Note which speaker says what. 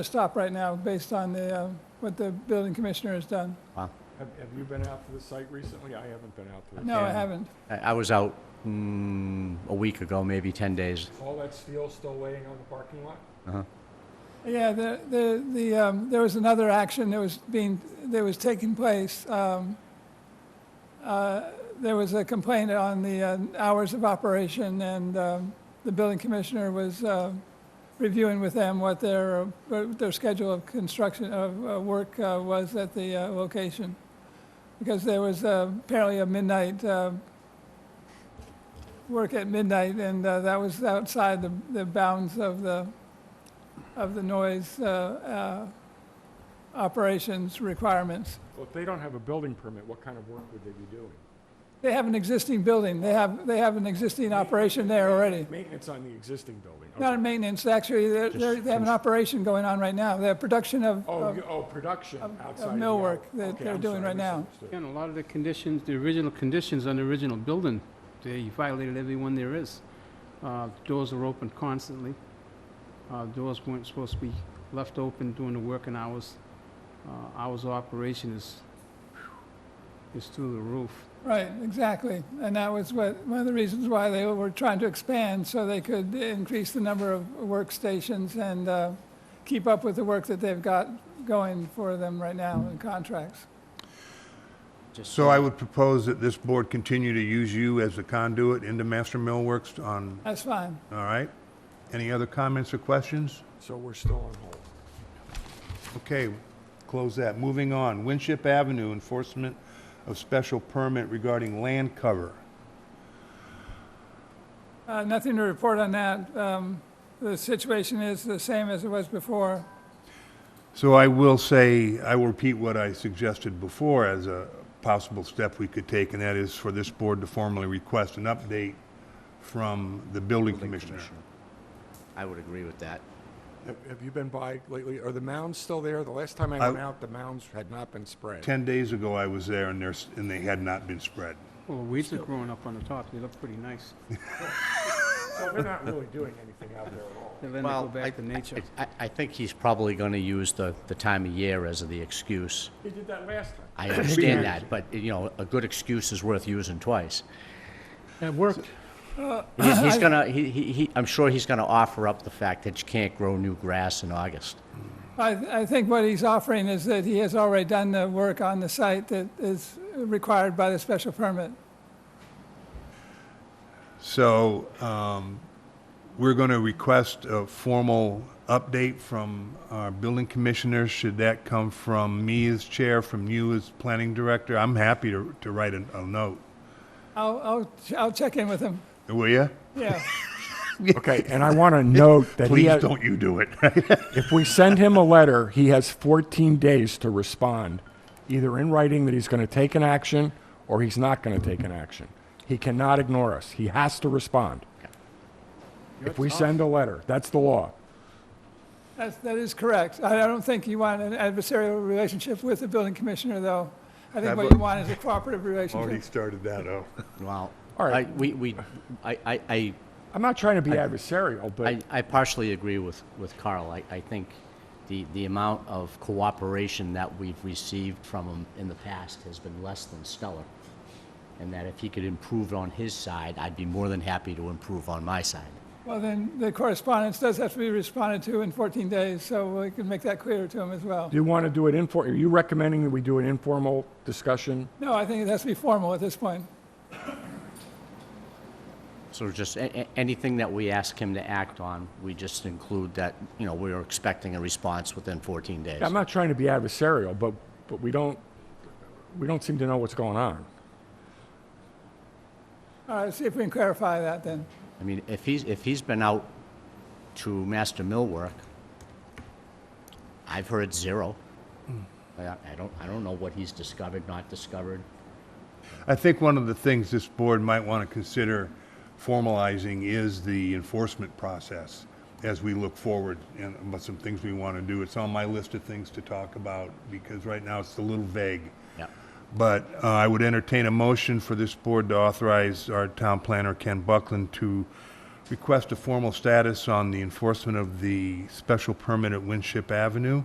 Speaker 1: stop right now based on the, uh, what the building commissioner has done.
Speaker 2: Have, have you been out to the site recently? I haven't been out to the.
Speaker 1: No, I
Speaker 3: Yeah.
Speaker 1: haven't.
Speaker 3: I, I was out mm, a week ago, maybe 10 days.
Speaker 2: All that steel still laying on the parking lot?
Speaker 1: Yeah, the, the, the, um, there was another action that was being, that was taking place. Um, uh, there was a complaint on the uh, hours of operation and, um, the building commissioner was, uh, reviewing with them what their, what their schedule of construction, of, uh, work, uh, was at the, uh, location. Because there was uh, apparently a midnight, uh, work at midnight and, uh, that was outside the, the bounds of the, of the noise uh, uh, operations requirements.
Speaker 2: Well, if they don't have a building permit, what kind of work would they be doing?
Speaker 1: They have an existing building, they have, they have an existing operation there already.
Speaker 2: Maintenance on the existing building.
Speaker 1: Not a
Speaker 2: okay.
Speaker 1: maintenance, actually, they're- they're- they have an operation going on right now, they're production of,
Speaker 2: Oh,
Speaker 1: of-
Speaker 2: you- oh, production
Speaker 1: of- of
Speaker 2: outside. of the
Speaker 1: millwork
Speaker 2: hour.
Speaker 1: that
Speaker 2: Okay,
Speaker 1: they're
Speaker 2: I'm
Speaker 1: doing
Speaker 2: sorry, I
Speaker 1: right now.
Speaker 2: misunderstood.
Speaker 4: Again, a lot of the conditions, the original conditions on the original building, they violated every one there is. Uh, Doors were open constantly. Uh, Doors weren't supposed to be left open during the working hours. Uh, Hours of operation is, is through the roof.
Speaker 1: right, exactly. And that was what, one of the reasons why they were trying to expand, so they could increase the number of workstations and uh, keep up with the work that they've got going for them right now in contracts.
Speaker 3: Just
Speaker 5: So I would propose that this board continue to use you as a conduit into Master Millworks on,
Speaker 1: That's fine.
Speaker 5: all right? Any other comments or questions?
Speaker 2: So we're still on hold.
Speaker 5: Okay, close that. Moving on, Winship Avenue, enforcement of special permit regarding land cover.
Speaker 1: Uh, Nothing to report on that. Um, The situation is the same as it was before.
Speaker 5: So I will say, I will repeat what I suggested before as a possible step we could take, and that is for this board to formally request an update from the building commissioner.
Speaker 3: I would agree with that.
Speaker 2: Have- Have you been by lately? Are the mounds still there? The last time I went
Speaker 5: I-
Speaker 2: out, the mounds had not been spread.
Speaker 5: Ten days ago, I was there, and there's, and they had not been spread.
Speaker 4: Well, the weeds are growing up on the top, they look pretty nice.
Speaker 2: So they're not really doing anything out there at all.
Speaker 4: And then they go
Speaker 3: Well, I,
Speaker 4: back to nature.
Speaker 3: I, I think he's probably going to use the, the time of year as the excuse.
Speaker 2: They did that last time.
Speaker 3: I understand that, but, you know, a good excuse is worth using twice.
Speaker 4: It worked.
Speaker 3: He's, he's gonna, he, he, he- I'm sure he's gonna offer up the fact that you can't grow new grass in August.
Speaker 1: I I think what he's offering is that he has already done the work on the site that is required by the special permit.
Speaker 5: So um, we're going to request a formal update from our building commissioner. Should that come from me as chair, from you as planning director? I'm happy to to write a a note.
Speaker 1: I'll, I'll, I'll check in with him.
Speaker 5: Will you?
Speaker 1: Yeah,
Speaker 2: Okay, and I want to note that he
Speaker 5: Please
Speaker 2: had,
Speaker 5: don't you do it.
Speaker 2: If we send him a letter, he has 14 days to respond, either in writing that he's going to take an action or he's not going to take an action. He cannot ignore us. He has to respond. If we send a letter, that's the law.
Speaker 1: that's, that is correct. I I don't think you want an adversarial relationship with the building commissioner, though. I think what you want is a cooperative relationship.
Speaker 5: started that, oh.
Speaker 3: Well,
Speaker 2: All right.
Speaker 3: I, we, we, I, I, I
Speaker 2: I'm not trying to be adversarial, but
Speaker 3: I, I partially agree with, with Carl. I, I think the, the amount of cooperation that we've received from him in the past has been less than stellar. And that if he could improve on his side, I'd be more than happy to improve on my side.
Speaker 1: Well, then, the correspondence does have to be responded to in 14 days, so we can make that clear to him as well.
Speaker 2: do you want to do it infor, are you recommending that we do an informal discussion?
Speaker 1: No, I think it has to be formal at this point.
Speaker 3: So just a- a- anything that we ask him to act on, we just include that, you know, we're expecting a response within 14 days.
Speaker 2: I'm not trying to be adversarial, but, but we don't, we don't seem to know what's going on.
Speaker 1: All right, see if we can clarify that then.
Speaker 3: I mean, if he's, if he's been out to master millwork, I've heard zero. I I don't, I don't know what he's discovered, not discovered.
Speaker 5: I think one of the things this board might want to consider formalizing is the enforcement process as we look forward and about some things we want to do. It's on my list of things to talk about because right now it's a little vague.
Speaker 3: Yeah.
Speaker 5: But uh, I would entertain a motion for this board to authorize our town planner, Ken Buckland, to request a formal status on the enforcement of the special permit at Winship Avenue.